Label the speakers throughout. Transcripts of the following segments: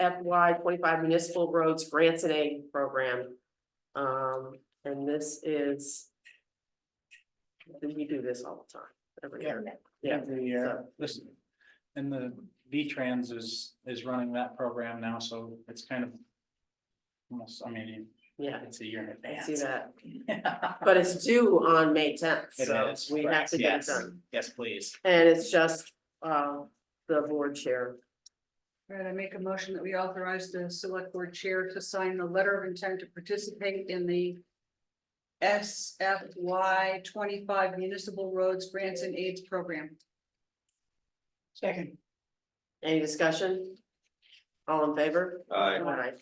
Speaker 1: FY twenty-five municipal roads grants and aid program. Um, and this is. We do this all the time, every year. Yeah.
Speaker 2: Every year, this, and the V-Trans is, is running that program now, so it's kind of. Almost, I mean, you-
Speaker 1: Yeah,
Speaker 2: it's a year in
Speaker 1: I
Speaker 2: advance.
Speaker 1: see that, but it's due on May tenth,
Speaker 2: It
Speaker 1: so
Speaker 2: is,
Speaker 1: we have
Speaker 2: correct,
Speaker 1: to get it
Speaker 2: yes.
Speaker 1: done.
Speaker 2: Yes, please.
Speaker 1: And it's just, uh, the board chair.
Speaker 3: Right, I make a motion that we authorize the select board chair to sign the letter of intent to participate in the. SFY twenty-five municipal roads grants and aids program.
Speaker 2: Second.
Speaker 1: Any discussion? All in favor?
Speaker 4: Aye.
Speaker 1: Aye.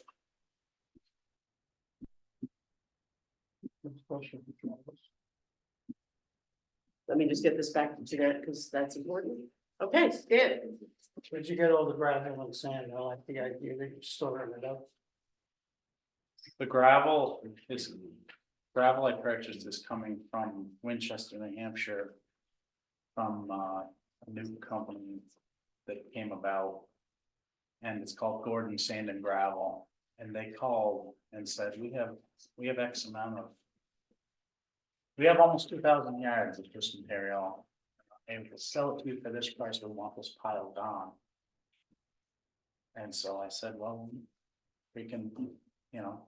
Speaker 1: Let me just get this back to Jeanette, because that's important. Okay, Dan,
Speaker 5: But you get all the gravel and sand, I like the idea that you're storing it up.
Speaker 2: The gravel is, gravel I purchased is coming from Winchester, New Hampshire. From uh, a new company that came about. And it's called Gordon Sand and Gravel, and they called and said, we have, we have X amount of. We have almost two thousand yards of this material, and we will sell it to you for this price, we want this piled on. And so I said, well, we can, you know,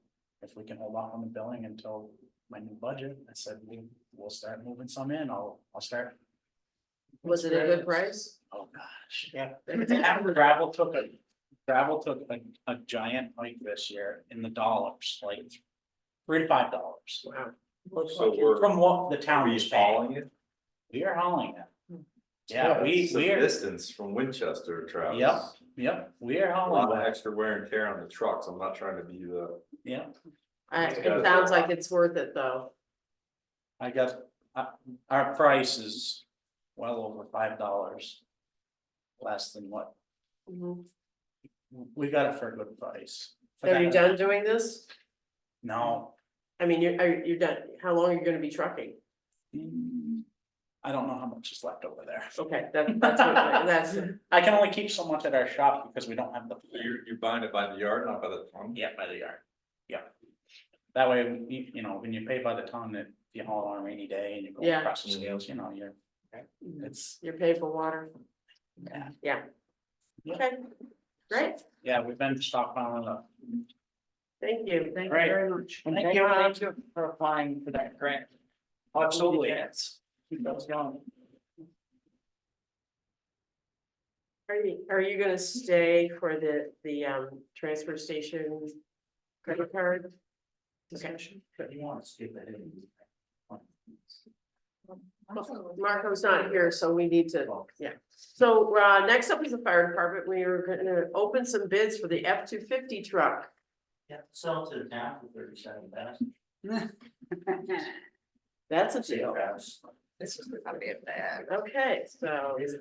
Speaker 2: if we can hold off on the billing until my new budget, I said, we, we'll start moving some in, I'll, I'll start,
Speaker 1: was it a good price?
Speaker 2: oh gosh, yeah. Gravel took a, gravel took a, a giant hike this year in the dollars, like three to five dollars.
Speaker 1: Wow.
Speaker 4: So we're-
Speaker 2: From what the
Speaker 4: Are
Speaker 2: town
Speaker 4: you
Speaker 2: is paying,
Speaker 4: following it?
Speaker 2: we are hauling it. Yeah, we,
Speaker 4: It's the
Speaker 2: we are,
Speaker 4: Distance from Winchester, Travis.
Speaker 2: Yep. yep, we are
Speaker 4: A
Speaker 2: hauling
Speaker 4: lot of
Speaker 2: it,
Speaker 4: extra wear and tear on the trucks. I'm not trying to be the,
Speaker 2: yeah.
Speaker 1: I, it sounds like it's worth it, though.
Speaker 2: I got, uh, our price is well over five dollars. Less than what,
Speaker 1: Mm-hmm.
Speaker 2: we got it for a good price. For
Speaker 1: Are you
Speaker 2: that-
Speaker 1: done doing this?
Speaker 2: No.
Speaker 1: I mean, you're, are, you're done, how long are you gonna be trucking?
Speaker 2: Mm, I don't know how much is left over there.
Speaker 1: Okay, that, that's, what I- that's,
Speaker 2: I can only keep so much at our shop because we don't have the.
Speaker 4: you're, you're buying it by the yard, not by the ton.
Speaker 2: Yeah, by the yard. Yeah. That way, you, you know, when you pay by the ton, that you haul on a rainy day and you go
Speaker 1: Yeah.
Speaker 2: across the scales, you know, you're, it's,
Speaker 1: you're paid for water,
Speaker 2: yeah.
Speaker 1: okay? Great,
Speaker 2: Yeah, we've been stockpiling up.
Speaker 1: thank you, thank you
Speaker 2: Great.
Speaker 1: very much.
Speaker 5: And
Speaker 1: Thank
Speaker 5: thank you, thank you for applying for that grant.
Speaker 2: Absolutely.
Speaker 5: Keep those going.
Speaker 1: Are you, are you gonna stay for the, the, um, transfer station credit card? Discussion.
Speaker 2: But you want to skip that in.
Speaker 1: Marco's not here, so we need to, yeah. So, uh, next up is the fire department. We are gonna open some bids for the F two fifty truck.
Speaker 5: Yeah, sell it to the town for thirty-seven thousand.
Speaker 1: That's a deal.
Speaker 3: This is gonna be a bad.
Speaker 1: Okay, so
Speaker 4: It's-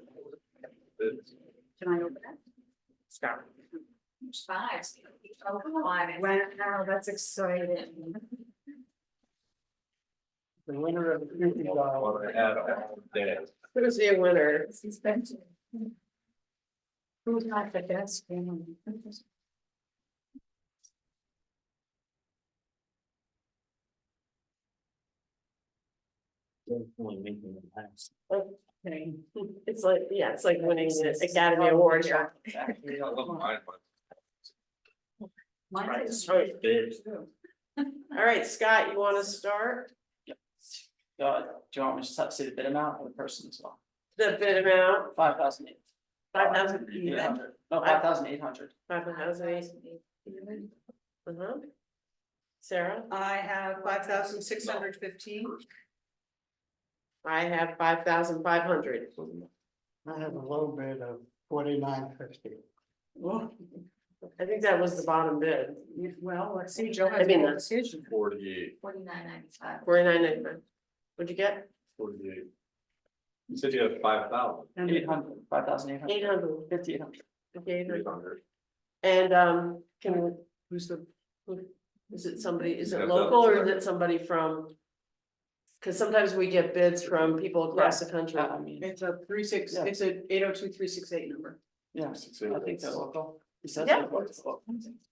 Speaker 3: Can I open it?
Speaker 1: Scott,
Speaker 3: There's five. Oh, come on. Wow, that's exciting.
Speaker 5: The winner of the fifty dollar.
Speaker 4: what I had all day.
Speaker 1: who's the winner?
Speaker 3: Who's not the best?
Speaker 1: Okay. It's like, yeah, it's like winning the Academy Award here.
Speaker 4: I love mine, but
Speaker 3: Mine's
Speaker 1: Right.
Speaker 3: big.
Speaker 1: All right, Scott, you wanna start?
Speaker 5: Do you want me to set- say the bid amount or the person as well?
Speaker 1: The bid amount,
Speaker 5: Five thousand eight.
Speaker 1: five thousand,
Speaker 5: Eight hundred, no, five thousand eight hundred.
Speaker 1: five thousand, uh-huh. Sarah,
Speaker 3: I have five thousand six hundred fifteen.
Speaker 1: I have five thousand five hundred.
Speaker 5: I have a low bid of forty-nine fifty.
Speaker 1: I think that was the bottom bid,
Speaker 3: Well, let's see, Joe
Speaker 1: I
Speaker 3: has
Speaker 1: mean,
Speaker 3: made a
Speaker 1: that's-
Speaker 3: decision.
Speaker 4: Forty-eight,
Speaker 6: Forty-nine ninety-five.
Speaker 1: forty-nine ninety-nine. What'd you get?
Speaker 4: forty-eight. You said you had five thousand,
Speaker 5: Eight hundred, five thousand eight
Speaker 1: Eight
Speaker 5: hundred,
Speaker 1: hundred.
Speaker 5: fifty eight hundred.
Speaker 1: Okay,
Speaker 4: three hundred.
Speaker 1: and, um, can, who's the, who, is it somebody, is
Speaker 4: Yeah,
Speaker 1: it
Speaker 4: that-
Speaker 1: local or is it somebody from? Cause sometimes we get bids from people across the country.
Speaker 5: I mean,
Speaker 3: It's a three six,
Speaker 5: Yeah.
Speaker 3: it's a eight oh two, three six eight number.
Speaker 5: yeah,
Speaker 4: Six
Speaker 5: I think they're
Speaker 4: acres.
Speaker 5: local.
Speaker 1: Yeah.